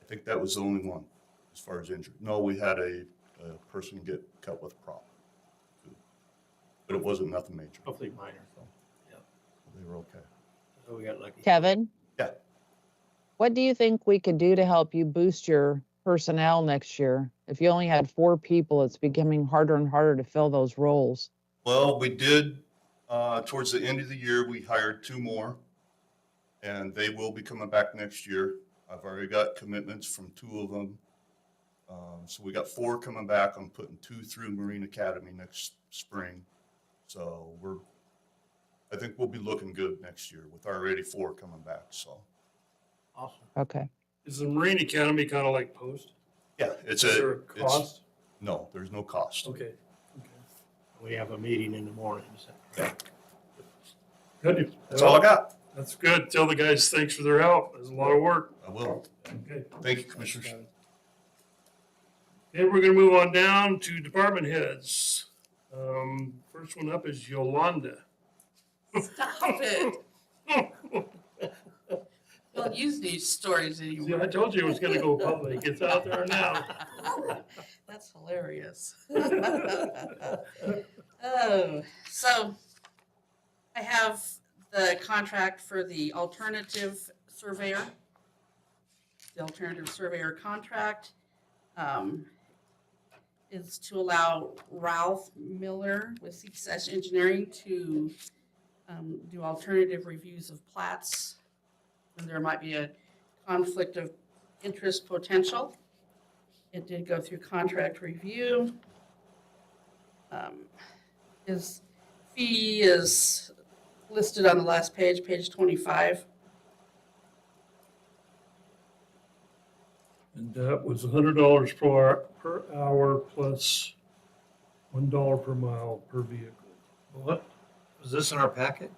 I think that was the only one as far as injury. No, we had a, a person get cut with a prop. But it wasn't nothing major. Oh. hopefully minor. They were okay. So we got lucky. Kevin? Yeah. What do you think we could do to help you boost your personnel next year? If you only had four people, it's becoming harder and harder to fill those roles. Well, we did, uh, towards the end of the year, we hired two more. And they will be coming back next year. I've already got commitments from two of them. Um, so we got four coming back. I'm putting two through Marine Academy next spring. So we're, I think we'll be looking good next year with already four coming back, so. Awesome. Okay. Is the Marine Academy kind of like post? Yeah, it's Is there a, a it's- cost? no, there's no cost. Okay. okay. We have a meeting in the morning. is that right? Good. That's all I got. That's good. Tell the guys, thanks for their help. It's a lot of work. I will. Okay. Thank you, Commissioners. Okay, we're gonna move on down to department heads. Um, first one up is Yolanda. Stop it. Don't use these stories See, anymore. I told you it was gonna go public. It's out there now. That's hilarious. Oh, so I have the contract for the alternative surveyor. The alternative surveyor contract um, is to allow Ralph Miller with Success Engineering to um, do alternative reviews of plats. And there might be a conflict of interest potential. It did go through contract review. Um, His fee is listed on the last page, page 25. And that was hundred dollars per hour, per hour plus one dollar per mile per vehicle. What, was this in our packet?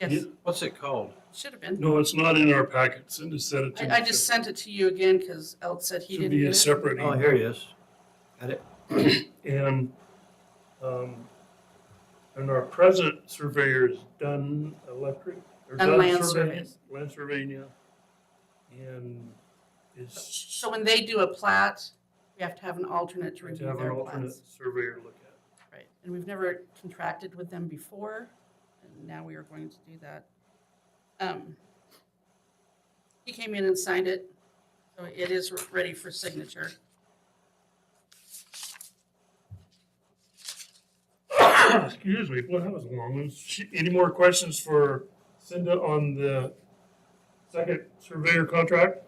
Yes, What's it called? should have been. No, it's not in our packet. Cindy said it to me. I, I just sent it to you again because Elt said he To didn't be get a it. separate Oh, email. here it is. Got it. And, um, and our present surveyor is Dunn Electric. or Dunn Land Surveying- Surveys. Land Surveying, yeah. And is So when they do a plat, we have to have an alternate to to review have an their alternate plats. surveyor look at. Right, and we've never contracted with them before, and now we are going to do that. Um, He came in and signed it, so it is ready for signature. Excuse me, well, that was a long. one. Sh- Any more questions for Cinda on the second surveyor contract?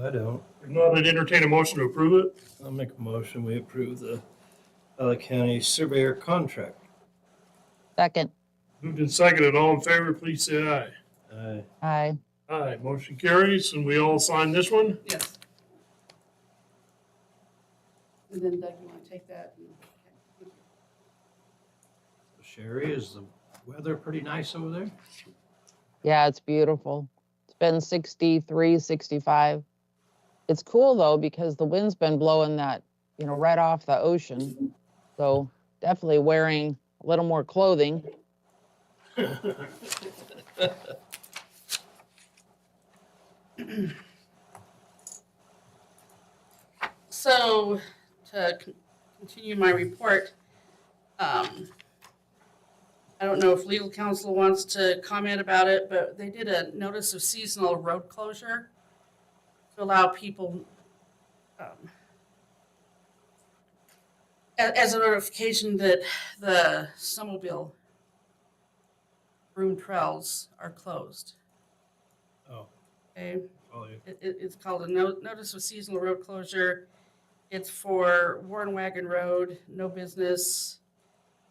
I don't. If not, I'd entertain a motion to approve it. I'll make a motion. We approve the Valley County Surveyor contract. Second. Moved and seconded, all in favor, please say aye. Aye. Aye. Aye, motion carries, and we all sign this one? Yes. And then Doug, you want to take that? and- okay, Sherry, is the weather pretty nice over there? Yeah, it's beautiful. It's been 63, 65. It's cool though because the wind's been blowing that, you know, right off the ocean. So definitely wearing a little more clothing. So to con- continue my report, um, I don't know if legal counsel wants to comment about it, but they did a notice of seasonal road closure to allow people, um, a- as a notification that the snowmobile room trails are closed, Oh, okay? follow you. It, it, it's called a no, notice of seasonal road closure. It's for Warren Wagon Road, No Business,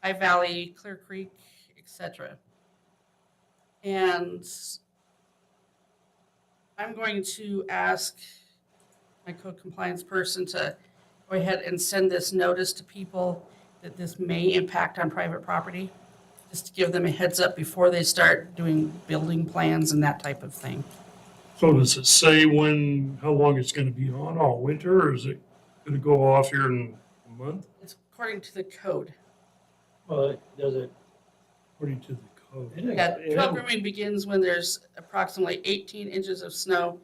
High Valley, Clear Creek, etc. And I'm going to ask my code compliance person to go ahead and send this notice to people that this may impact on private property, just to give them a heads up before they start doing building plans and that type of thing. So does it say when, how long it's gonna be on, all winter, or is it gonna go off here in a month? It's according to the code. Well, it does it. According to the code. it- Yeah, it- trail grooming begins when there's approximately eighteen inches of snow